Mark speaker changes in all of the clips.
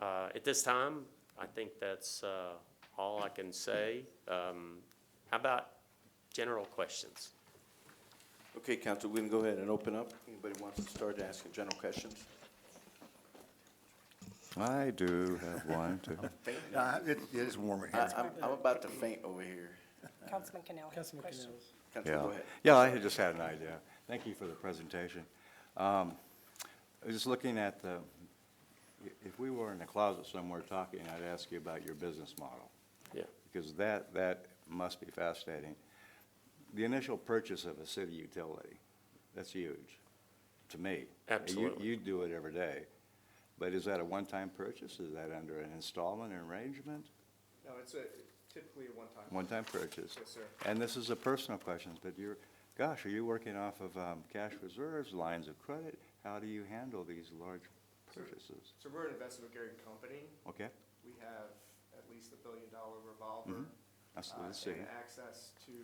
Speaker 1: Uh, At this time, I think that's uh, all I can say. Um, How about general questions?
Speaker 2: Okay, council, we can go ahead and open up. Anybody wants to start asking general questions?
Speaker 3: I do have one, too.
Speaker 4: Uh, It it is warmer
Speaker 2: I,
Speaker 4: here.
Speaker 2: I'm, I'm about to faint over here.
Speaker 5: Councilman Canal has a
Speaker 6: Councilman
Speaker 5: question.
Speaker 6: Canales.
Speaker 2: Council,
Speaker 3: Yeah,
Speaker 2: go ahead.
Speaker 3: yeah, I had just had an idea. Thank you for the presentation. Um, I was just looking at the, if we were in the closet somewhere talking, I'd ask you about your business model,
Speaker 1: Yeah.
Speaker 3: because that, that must be fascinating. The initial purchase of a city utility, that's huge, to me.
Speaker 1: Absolutely.
Speaker 3: You, you do it every day, but is that a one-time purchase? Is that under an installment arrangement?
Speaker 7: No, it's a typically a one-time.
Speaker 3: One-time purchase.
Speaker 7: Yes, sir.
Speaker 3: And this is a personal question, but you're, gosh, are you working off of um, cash reserves, lines of credit? How do you handle these large purchases?
Speaker 7: So we're an investment grade company.
Speaker 3: Okay,
Speaker 7: We have at least a billion dollar revolver.
Speaker 3: that's,
Speaker 7: uh,
Speaker 3: let's Mm-hmm. see.
Speaker 7: And access to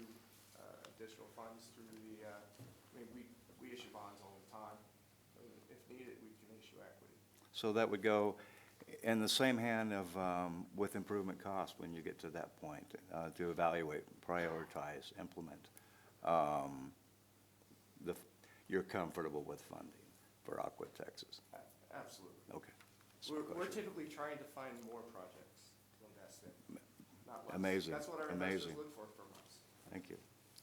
Speaker 7: uh, additional funds through the, uh, I mean, we, we issue bonds all the time. I mean, If needed, we can issue equity.
Speaker 3: So that would go in the same hand of, um, with improvement costs when you get to that point, uh, to evaluate, prioritize, implement. um, The, you're comfortable with funding for Aqua Texas?
Speaker 7: A- Absolutely.
Speaker 3: Okay. That's my
Speaker 7: We're, we're
Speaker 3: question.
Speaker 7: typically trying to find more projects to invest in, not less.
Speaker 3: Amazing,
Speaker 7: That's what our investors
Speaker 3: amazing.
Speaker 7: look for from us.
Speaker 3: Thank you.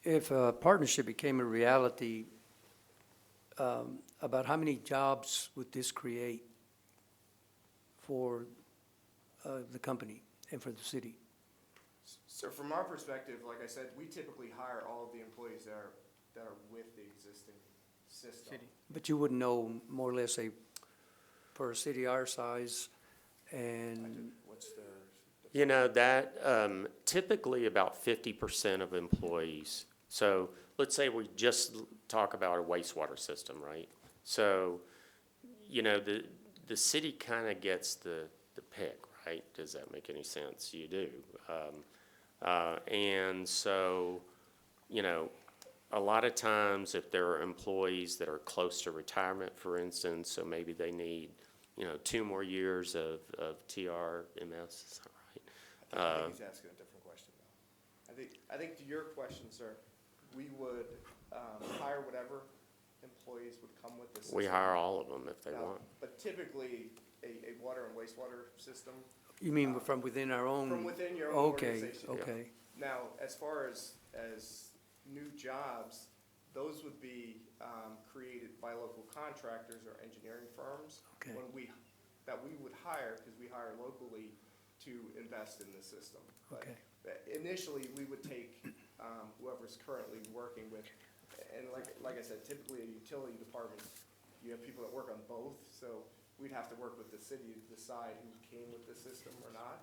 Speaker 6: If a partnership became a reality, um, about how many jobs would this create for uh, the company and for the city?
Speaker 7: So from our perspective, like I said, we typically hire all of the employees that are, that are with the existing system.
Speaker 6: But you wouldn't know more or less a, for a city our size and
Speaker 7: What's their?
Speaker 1: You know, that um, typically about fifty percent of employees. So let's say we just l- talk about a wastewater system, right? So, you know, the, the city kind of gets the, the pick, right? Does that make any sense? You do. Um, uh, And so, you know, a lot of times if there are employees that are close to retirement, for instance, so maybe they need, you know, two more years of, of TRMS, is that right?
Speaker 7: I
Speaker 1: Uh,
Speaker 7: think he's asking a different question though. I think, I think to your question, sir, we would, um, hire whatever employees would come with the system.
Speaker 1: We hire all of them if they
Speaker 7: Now,
Speaker 1: want.
Speaker 7: But typically, a, a water and wastewater system,
Speaker 6: you mean from within our own?
Speaker 7: from within your own organization.
Speaker 6: Okay, okay.
Speaker 7: Now, as far as, as new jobs, those would be um, created by local contractors or engineering firms.
Speaker 6: Okay.
Speaker 7: When we, that we would hire, because we hire locally to invest in the system. But
Speaker 6: Okay.
Speaker 7: that Initially, we would take um, whoever's currently working with, and like, like I said, typically a utility department, you have people that work on both, so we'd have to work with the city to decide who came with the system or not.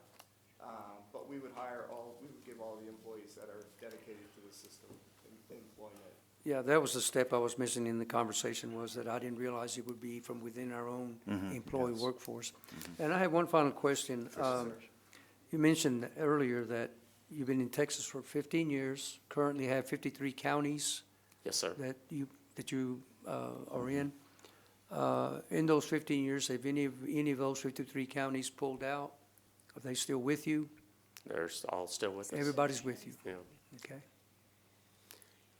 Speaker 7: Um, But we would hire all, we would give all the employees that are dedicated to the system em- employment.
Speaker 6: Yeah, that was the step I was missing in the conversation, was that I didn't realize it would be from within our own employee workforce. And I have one final question. Um, You mentioned earlier that you've been in Texas for fifteen years, currently have fifty-three counties
Speaker 1: Yes, sir.
Speaker 6: that you, that you uh, are in. Uh, In those fifteen years, have any, of any of those fifty-three counties pulled out? Are they still with you?
Speaker 1: They're s- all still with us.
Speaker 6: Everybody's with you,
Speaker 1: Yeah.
Speaker 6: okay?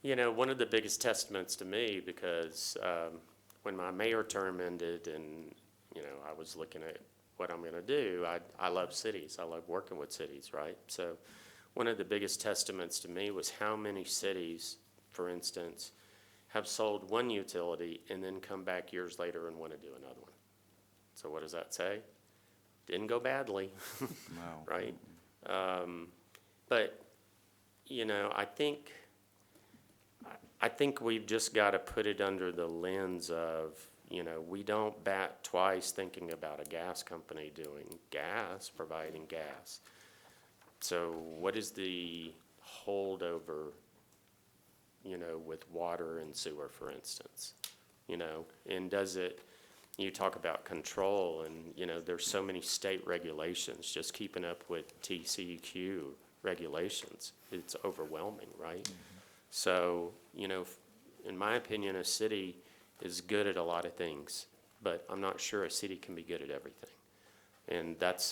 Speaker 1: You know, one of the biggest testaments to me, because um, when my mayor term ended and, you know, I was looking at what I'm going to do, I, I love cities. I love working with cities, right? So one of the biggest testaments to me was how many cities, for instance, have sold one utility and then come back years later and want to do another one. So what does that say? Didn't go badly.
Speaker 3: Wow.
Speaker 1: right? Um, but, you know, I think, I- I think we've just got to put it under the lens of, you know, we don't bat twice thinking about a gas company doing gas, providing gas. So what is the holdover, you know, with water and sewer, for instance? You know, and does it, you talk about control and, you know, there's so many state regulations, just keeping up with TCEQ regulations, it's overwhelming, right? So, you know, f- in my opinion, a city is good at a lot of things, but I'm not sure a city can be good at everything. And that's